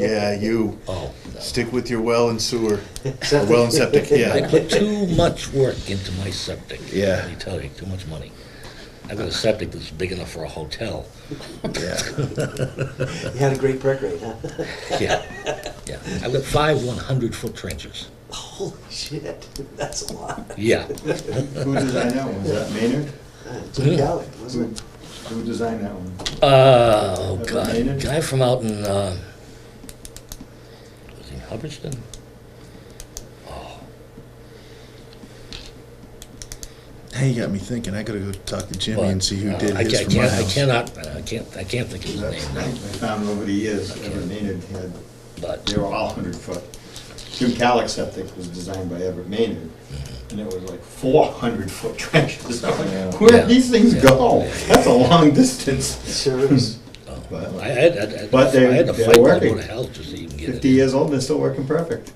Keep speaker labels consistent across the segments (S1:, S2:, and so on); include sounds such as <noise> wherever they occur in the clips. S1: Yeah, you.
S2: Oh.
S1: Stick with your well and sewer,
S2: <laughs>
S1: or well and septic,
S2: I
S1: yeah.
S2: put too much work into my septic.
S1: Yeah.
S2: Let me tell you, too much money. I've got a septic that's big enough for a hotel.
S1: yeah.
S3: You had a great perk rate, huh? <laughs>
S2: Yeah, yeah. I've got five 100-foot trenches.
S3: Holy shit, that's a lot.
S2: Yeah.
S4: Who designed that one? Was that Maynard?
S3: Uh, Jim Gallagher,
S4: Who,
S3: wasn't it?
S4: who designed that one?
S2: Uh, oh, God.
S4: Related?
S2: Guy from out in, uh, was he in Hubbardston?
S5: <laughs> Hey, you got me thinking. I gotta go talk to Jimmy and see who
S2: Uh,
S5: did
S2: I
S5: his
S2: ca-
S5: for
S2: can't-
S5: my
S2: I
S5: house.
S2: cannot, uh, I can't, I can't think of his
S4: That's,
S2: name
S4: I
S2: now,
S4: found over the years, Everett Maynard had,
S2: but,
S4: they were all hundred foot. Jim Calix septic was designed by Everett Maynard, and it was like four hundred foot trenches. <laughs> I'm
S5: Yeah.
S4: like, Where
S2: Yeah.
S4: did these things
S2: Yeah.
S4: go? That's a long distance.
S6: Mm. <laughs>
S3: Sure is. <laughs>
S2: oh,
S4: But
S2: I had, I had-
S4: But
S2: I
S4: they-
S2: had to
S4: they're
S2: fight my
S4: working.
S2: Board of Health just to even get it.
S4: fifty years old, and they're still working perfect.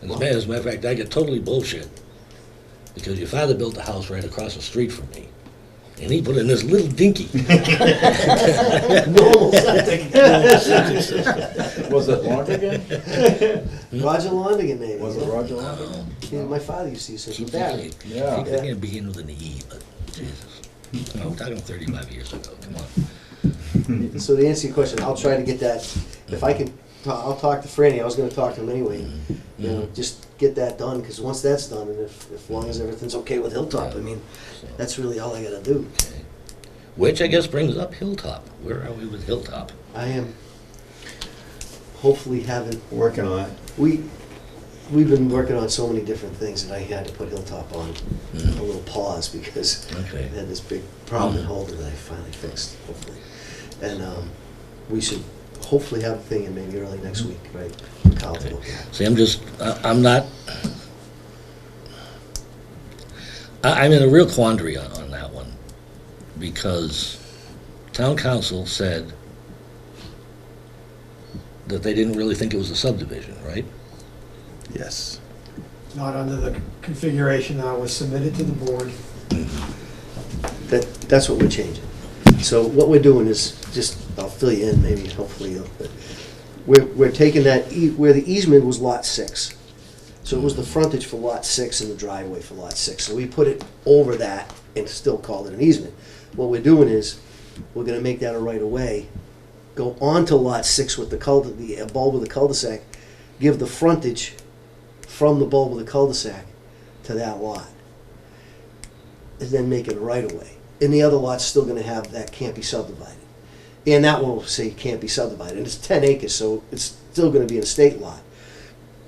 S2: And As a matter, as a matter of fact, I get totally bullshit because your father built a house right across the street from me, and he put in this little dinky.
S3: Normal septic.
S6: Was it long again?
S3: Roger Londigan name.
S6: Was
S3: you
S6: it
S3: know?
S6: Roger Mm-hmm. Long?
S3: Yeah, my father used to use it
S2: Keep
S3: with that.
S2: thinking,
S6: Yeah.
S2: keep thinking it begin with an E, but Jesus, I'm talking 35 years ago. Come on.
S3: So to answer your question, I'll try to get that, if
S6: Mm-hmm.
S3: I can, ta- I'll talk to Franny, I was gonna talk to him anyway. You know, just get that done, because once that's done, and if, if long as everything's okay with Hilltop, I mean, that's really all I gotta do.
S2: Which I guess brings up Hilltop. Where are we with Hilltop?
S3: I am hopefully having
S4: Working on it.
S3: We, we've been working on so many different things that I had to put Hilltop on a little pause because I
S2: Okay.
S3: had this big problem in Holden that I finally fixed, hopefully. And um, we should hopefully have a thing in maybe early next week, right? for Kyle to look at.
S2: See, I'm just, I- I'm not, I- I'm in a real quandary on, on that one, because town council said that they didn't really think it was a subdivision, right?
S5: Yes.
S7: not under the configuration that was submitted to the board.
S3: That, that's what we're changing. So what we're doing is, just, I'll fill you in maybe, hopefully, you'll- but we're, we're taking that, ea- where the easement was lot six. So it was the frontage for lot six and the driveway for lot six. So we put it over that and still called it an easement. What we're doing is, we're gonna make that a right of way, go onto lot six with the cul, the uh, bulb of the cul-de-sac, give the frontage from the bulb of the cul-de-sac to that lot and then make it a right of way. And the other lot's still gonna have, that can't be subdivided. And that one will say can't be subdivided, and it's ten acres, so it's still gonna be an estate lot.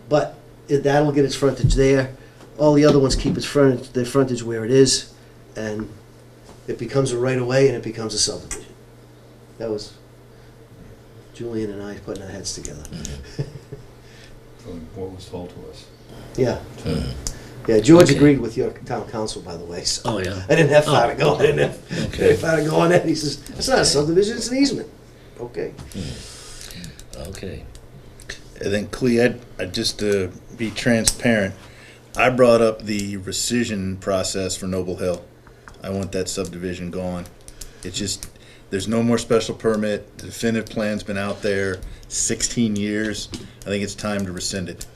S3: But it- that'll get its frontage there, all the other ones keep its frontage, their frontage where it is, and it becomes a right of way and it becomes a subdivision. That was Julian and I putting our heads together. <laughs>
S4: from What was told to us.
S3: Yeah. Yeah, George
S2: Hmm. Okay.
S3: agreed with your town council, by the way, so.
S2: Oh, yeah.
S3: I didn't have far to go. I didn't have
S2: Okay.
S3: far to go on that. He says, it's not a subdivision, it's an easement. Okay.
S2: Okay.
S5: And then Clea, I, I just to be transparent, I brought up the rescission process for Noble Hill. I want that subdivision gone. It's just there's no more special permit. The definitive plan's been out there 16 years. I think it's time to rescind it.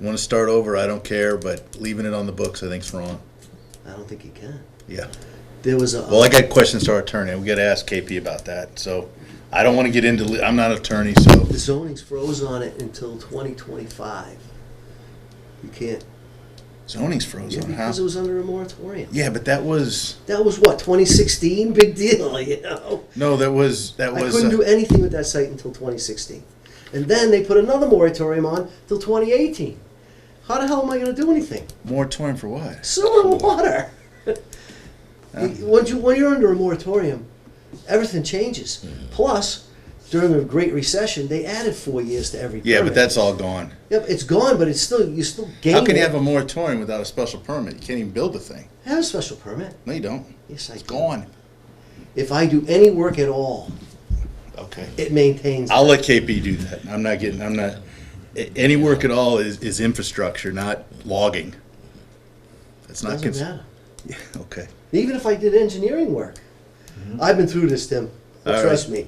S5: Want to start over? I don't care, but leaving it on the books I think's wrong.
S3: I don't think you can.
S5: Yeah.
S3: There was a.
S5: Well, I got questions to our attorney. We got to ask KP about that. So I don't want to get into, li- I'm not an attorney, so.
S3: The zoning's froze on it until 2025. You can't.
S5: Zoning's
S3: Yeah,
S5: frozen, huh?
S3: because it was under a moratorium.
S5: Yeah, but that was,
S3: That was what, 2016? Big deal, <laughs> you know?
S5: no, that was, that
S3: I
S5: was.
S3: couldn't
S5: uh,
S3: do anything with that site until 2016. And then they put another moratorium on till 2018. How the hell am I going to do anything?
S5: Moratorium for what?
S3: Sewer and water. <laughs> When you, when you're under a moratorium, everything changes.
S5: Mm-hmm.
S3: Plus, during the Great Recession, they added four years to every permit.
S5: Yeah, but that's all gone.
S3: Yep, it's gone, but it's still, you still gain.
S5: How can you
S3: it.
S5: have a moratorium without a special permit? You can't even build the thing.
S3: I have a special permit.
S5: No, you don't.
S3: Yes, I
S5: It's
S3: do.
S5: gone.
S3: If I do any work at all,
S5: Okay.
S3: it maintains.
S5: I'll let KP do that. I'm not getting, I'm not, a- any work at all is, is infrastructure, not logging. That's not.
S3: Doesn't
S5: cons-
S3: matter.
S5: Okay.
S3: Even if I did engineering work. I've been through this, Tim.
S5: Mm-hmm. All
S3: Trust me.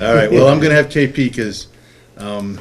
S5: All right, well, I'm gonna have KP, because Um,